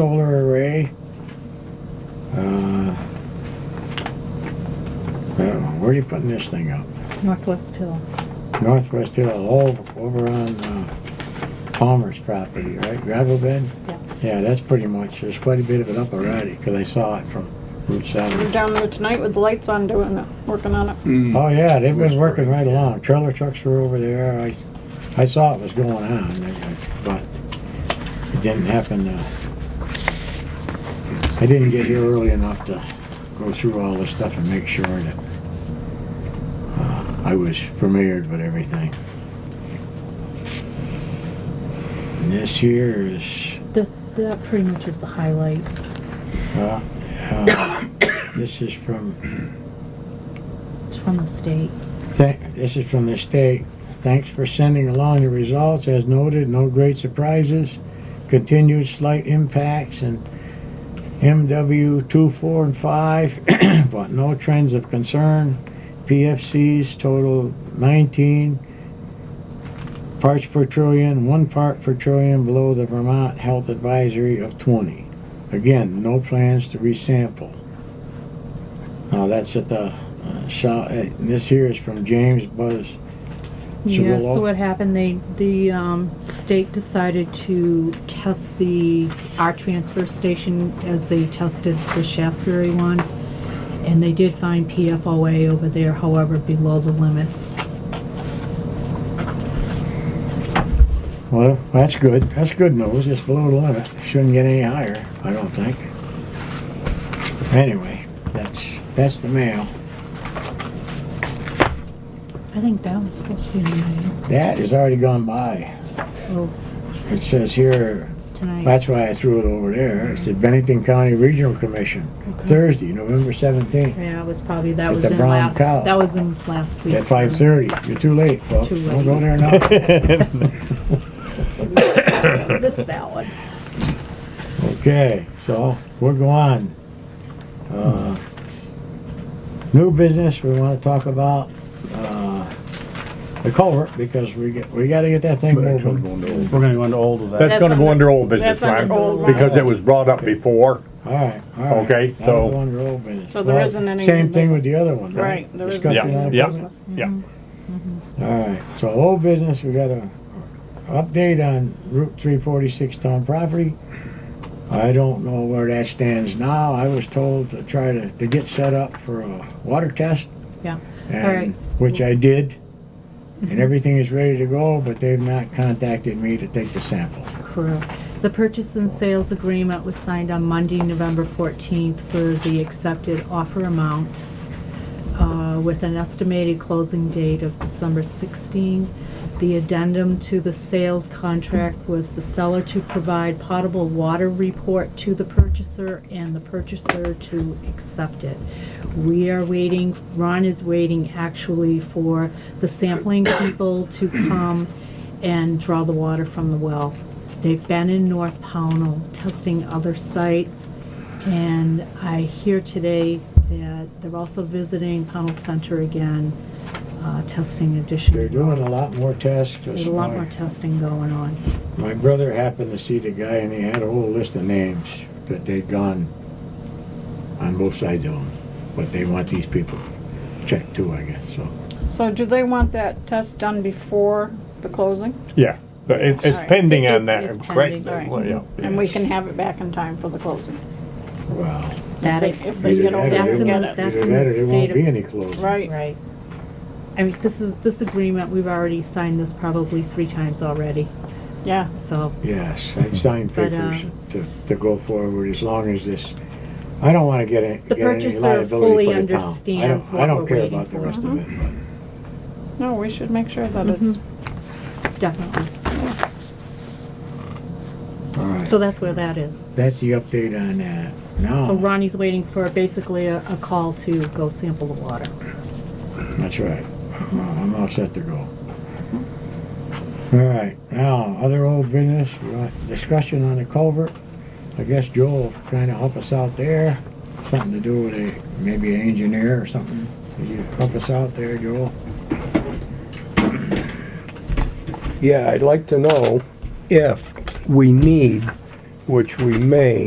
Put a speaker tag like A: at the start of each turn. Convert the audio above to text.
A: solar array. Uh, I don't know, where are you putting this thing up?
B: Northwest Hill.
A: Northwest Hill, over, over on uh, Palmer's property, right, gravel bed?
B: Yeah.
A: Yeah, that's pretty much, there's quite a bit of it up already, because I saw it from Route
C: We were
A: 7.
C: down there tonight with the lights on doing it, working on it.
D: Mm.
A: Oh, yeah, they've been working right along, trailer trucks were over there, I, I saw it was going on, I- I- but it didn't happen, uh, I didn't get here early enough to go through all this stuff and make sure that uh, I was familiar with everything. And this here is
B: That, that pretty much is the highlight.
A: Uh, uh, This is from,
B: It's from the state.
A: thank- this is from the state. Thanks for sending along the results. As noted, no great surprises, continued slight impacts in MW two, four, and five, but no trends of concern. PFCs total nineteen parts per trillion, one part per trillion below the Vermont Health Advisory of twenty. Again, no plans to resample. Now, that's at the, uh, so, uh, this here is from James Buzz.
B: Yeah,
A: Cirillo.
B: so what happened, they, the, um, state decided to test the, our transfer station as they tested the Shaftesbury one. And they did find PFOA over there, however, below the limits.
A: Well, that's good. That's good news. It's below the limit. Shouldn't get any higher, I don't think. Anyway, that's, that's the mail.
B: I think that was supposed to be in the mail.
A: That is already gone by.
B: Oh,
A: It says here,
B: it's tonight.
A: that's why I threw it over there. It said Bennington County Regional Commission,
B: Okay.
A: Thursday, November seventeenth,
B: Yeah, it was probably, that
A: With
B: was
A: the
B: in
A: brown
B: last,
A: cow.
B: that was in last week.
A: at five thirty. You're too late, folks.
B: Too
A: Don't go
B: late.
A: there now.
B: Missed that one.
A: Okay, so we're going. Uh, New business we wanna talk about, uh, the culvert, because we get, we gotta get that thing moving.
E: We're gonna go into old with that.
C: That's
F: That's gonna go
C: under-
F: under old business,
C: that's under
F: right?
C: old
F: Because it was brought up before.
A: Alright, alright.
F: Okay,
A: That'll
F: so-
A: go under old business.
C: So there
A: Well,
C: isn't any new
A: Same thing
C: business.
A: with the other one, right?
C: Right, there is.
A: Discussion
F: Yeah,
A: on
F: yeah.
A: business.
F: Yeah.
A: Alright, so old business, we got a update on Route three forty-six town property. I don't know where that stands now. I was told to try to, to get set up for a water test.
B: Yeah.
A: and-
B: Alright. Mm-hmm.
A: Which I did, and everything is ready to go, but they've not contacted me to take the sample.
B: crew. The purchase and sales agreement was signed on Monday, November 14th for the accepted offer amount uh, with an estimated closing date of December 16. The addendum to the sales contract was the seller to provide potable water report to the purchaser and the purchaser to accept it. We are waiting, Ron is waiting actually for the sampling people to come and draw the water from the well. They've been in North Pownell testing other sites, and I hear today that they're also visiting Pownell Center again, uh, testing additional.
A: They're doing a
B: wells.
A: lot more tests. 'cause
B: There's a lot
A: my-
B: more testing going on.
A: My brother happened to see the guy and he had a whole list of names that they'd gone on both sides of them. But they want these people checked too, I guess, so.
C: So do they want that test done before the closing?
F: Yeah, but it-
C: All
F: it's
C: right.
F: pending
B: It's-
F: on
B: it's-
F: that.
B: it's
F: Correct.
C: pending.
F: Well, yeah.
C: And we can have it back in time for the closing.
A: Wow.
B: That,
C: If they- if they
A: Either
C: get
A: that
C: over
A: or
B: That's
A: they
C: and
B: in
C: get
B: the-
C: it.
B: that's
A: either
B: in the
A: that or There
B: state
A: won't
B: of-
A: be any closing.
C: Right,
B: right. I mean, this is, this agreement, we've already signed this probably three times already,
C: yeah.
B: so.
A: Yes, I've signed
B: But,
A: papers
B: uh,
A: to, to go forward as long as this, I don't wanna get any,
B: The
A: get any
B: purchaser
A: liability
B: fully
A: for the town. I
B: understands
A: don't, I
B: what
A: don't
B: we're
A: care
B: waiting
A: about the
B: for. uh-huh.
A: rest of it, but.
C: No, we should make sure that it's,
B: Definitely.
A: All
B: So
A: right,
B: that's where that is.
A: that's the update on that.
B: So
A: Now,
B: Ronnie's waiting for basically a, a call to go sample the water.
A: that's right. I'm all set to go. All right, now, other old business, we want discussion on the culvert. I guess Joel trying to help us out there. Something to do with a, maybe an engineer or something. Could you help us out there, Joel?
D: Yeah, I'd like to know if we need, which we may,